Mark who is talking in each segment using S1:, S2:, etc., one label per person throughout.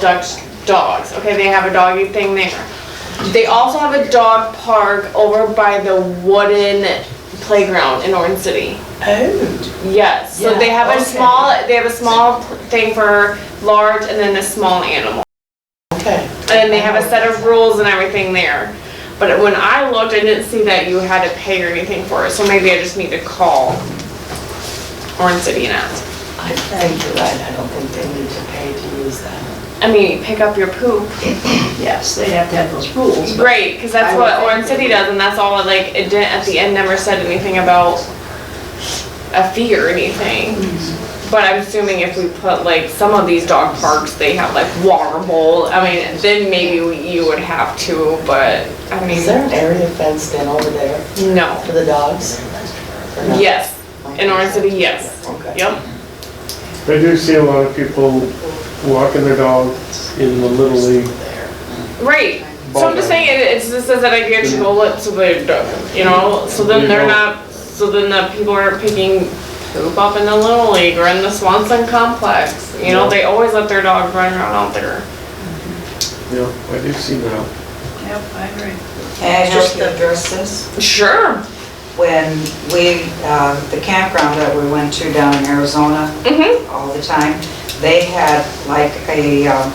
S1: Dutch dogs. Okay, they have a doggy thing there. They also have a dog park over by the wooden playground in Orange City.
S2: Oh,
S1: Yes. So
S2: Yeah,
S1: they have a
S2: okay.
S1: small they have a small thing for large and then a small animal.
S2: okay.
S1: And they have a set of rules and everything there. But when I looked, I didn't see that you had to pay or anything for it. So maybe I just need to call Orange City and ask.
S2: I think you're right, I don't think they need to pay to use that.
S1: I mean, you pick up your poop.
S3: Yes, they have to have those rules, but
S1: Right, because that's
S3: I
S1: what
S3: would
S1: Orange
S3: think-
S1: City does, and that's all, like, it didn't, at the end, never said anything about a fee or anything. But I'm assuming if we put, like, some of these dog parks, they have, like, water bowl, I mean, then maybe we- you would have to, but, I
S2: Is there
S1: mean,
S2: an area fenced in over there
S1: no.
S2: for the dogs? Or no?
S1: Yes, in Orange City, yes.
S2: Okay.
S1: Yep,
S4: I do see a lot of people walking their dog in the Little League.
S1: right. So I'm just saying, it- it's just as an idea to go look to the, dog, Mm-hmm. you know, so then they're not, so then the people aren't picking poop up in the Little League or in the Swanson Complex. You know, they always let their dog run around out there.
S4: Yeah, I do see that.
S3: Yep, I agree.
S5: Can I just address this?
S1: Sure.
S5: When we, uh, the campground that we went to down in Arizona
S1: Mm-hmm.
S5: all the time, they had like a, um,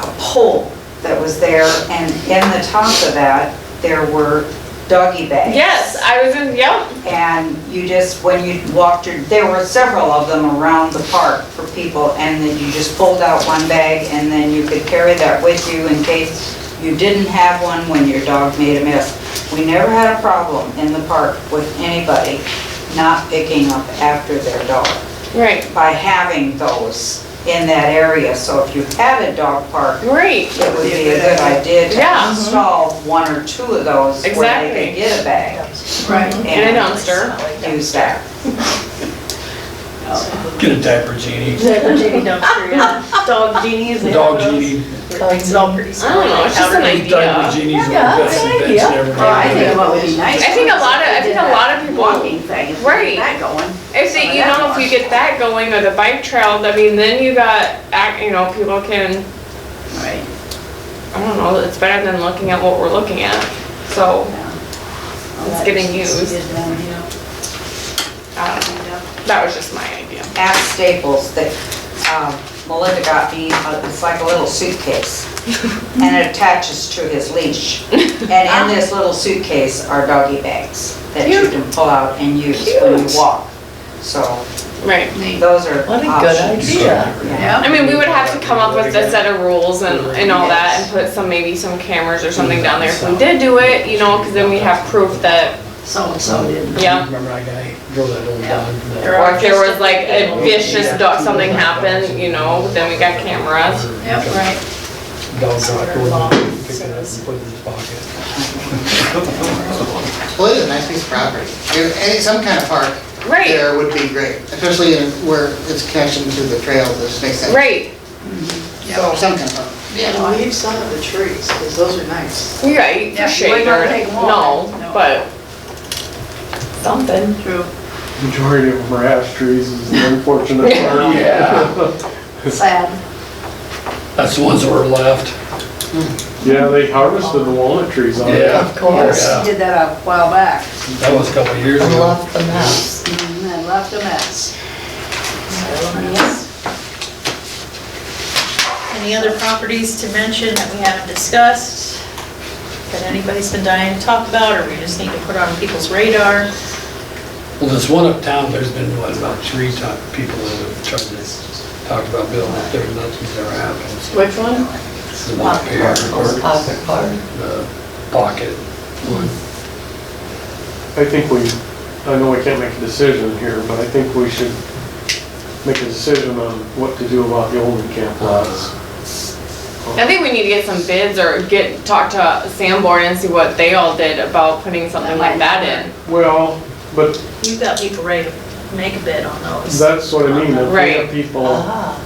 S5: a pole that was there, and in the top of that, there were doggy bags.
S1: Yes, I was in, yep.
S5: And you just, when you walked your, there were several of them around the park for people, and then you just pulled out one bag, and then you could carry that with you in case you didn't have one when your dog made a mess. We never had a problem in the park with anybody not picking up after their dog
S1: Right,
S5: by having those in that area. So if you had a dog park,
S1: great.
S5: it would be a good idea
S1: Yeah.
S5: to install one or two of those where they
S1: Exactly.
S5: could get a bag
S3: Right.
S1: And a
S5: and
S1: dumpster.
S5: use that.
S6: Get a diaper genie.
S3: Never genie dumpster, yeah. Dog genies. they have
S6: Dog
S3: those.
S6: genie.
S3: It's all pretty
S1: I don't know, it's just an
S3: small.
S6: Diaper
S1: idea.
S6: genies are the
S3: Yeah,
S6: best
S3: that's an
S6: invention
S3: idea.
S6: ever
S7: Well, I think
S6: made.
S7: what would be nice.
S1: I think a lot of- I think a lot of
S7: is
S1: people-
S7: Walking thing, if we
S1: Right.
S7: get that going.
S1: If they, you know, if you get that going or the bike trail, I mean, then you got, ac- you know, people can,
S7: Right.
S1: I don't know, it's better than looking at what we're looking at. So, It's getting used. um, that was just my idea.
S5: at Staples that um, Melinda got me, uh, it's like a little suitcase, and it attaches to his leash. And in this little suitcase are doggy bags that you can pull out and use when you
S1: Cute.
S5: walk. So
S1: Right.
S5: those are
S2: What a good
S5: options.
S2: idea.
S5: Yeah.
S1: I
S7: Yeah,
S1: mean, we would have to come up with a set of rules and, and all that and put some, maybe some cameras or something down there if we did do it, you know, cause then we have proof that,
S3: So-and-so did.
S1: yeah.
S6: Remember that guy drove that old dog? that-
S1: Or if there was like a vicious dog, something happened, you know, then we got cameras.
S3: Yep, right.
S6: Dog got pulled up, picked it up and put it in his pocket.
S8: Well, it is a nice piece of property. If any, some kind of park
S1: Right,
S8: there would be great, especially in where it's connection to the trails, this makes sense.
S1: right,
S8: So, some kind of park.
S7: Yeah.
S3: leave some of the trees, because those are nice.
S1: you're right,
S7: Yeah, you
S1: for shade
S7: might not
S1: or,
S7: take them all.
S1: no,
S7: No.
S1: but something.
S7: true.
S4: Majority of them are ash trees is the unfortunate part.
S6: Yeah,
S3: Sad.
S6: that's the ones that were left.
S4: Yeah, they harvested the walnut trees on
S6: Yeah,
S4: it.
S6: of course.
S7: We Did that a while back,
S6: That was a couple of years
S2: I
S6: ago.
S2: love the mouse.
S7: and
S3: Mm-hmm.
S7: then left a mess.
S9: Any other properties to mention that we haven't discussed? That anybody's been dying to talk about, or we just need to put on people's radar?
S6: Well, this one uptown, there's been, what, about three top people that have tried to talk about building up there, nothing's ever happened. so
S1: Which one?
S6: it's The one up here, or
S2: Pocket park.
S6: the pocket one.
S4: I think we, I know we can't make a decision here, but I think we should make a decision on what to do about the Olden Camp lots.
S1: I think we need to get some bids or get, talk to Sanborn and see what they all did about putting something like that in.
S4: Well, but
S9: You've got people ready to make a bid on those.
S4: that's what I mean, if we
S1: Right. Uh-huh.
S4: have people
S2: Ah,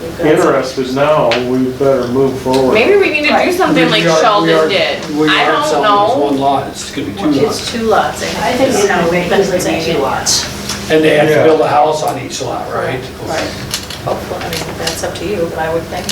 S9: We've got some-
S4: interested now, we better move forward.
S1: Maybe we need to do something like
S6: We are- we are-
S1: Sheldon did.
S6: We
S1: I
S6: are
S1: don't
S6: selling this
S1: know.
S6: one lot, it's gonna be two
S9: It's
S6: lots.
S9: two lots, I
S3: I
S9: think.
S3: think
S9: is
S3: it's
S9: how
S3: gonna
S9: we
S3: make
S9: put
S3: these like
S9: it
S3: two
S9: in.
S3: lots.
S6: And they have to
S4: Yeah.
S6: build a house on each lot, right?
S3: Right.
S9: hopefully, I mean, that's up to you, but I would think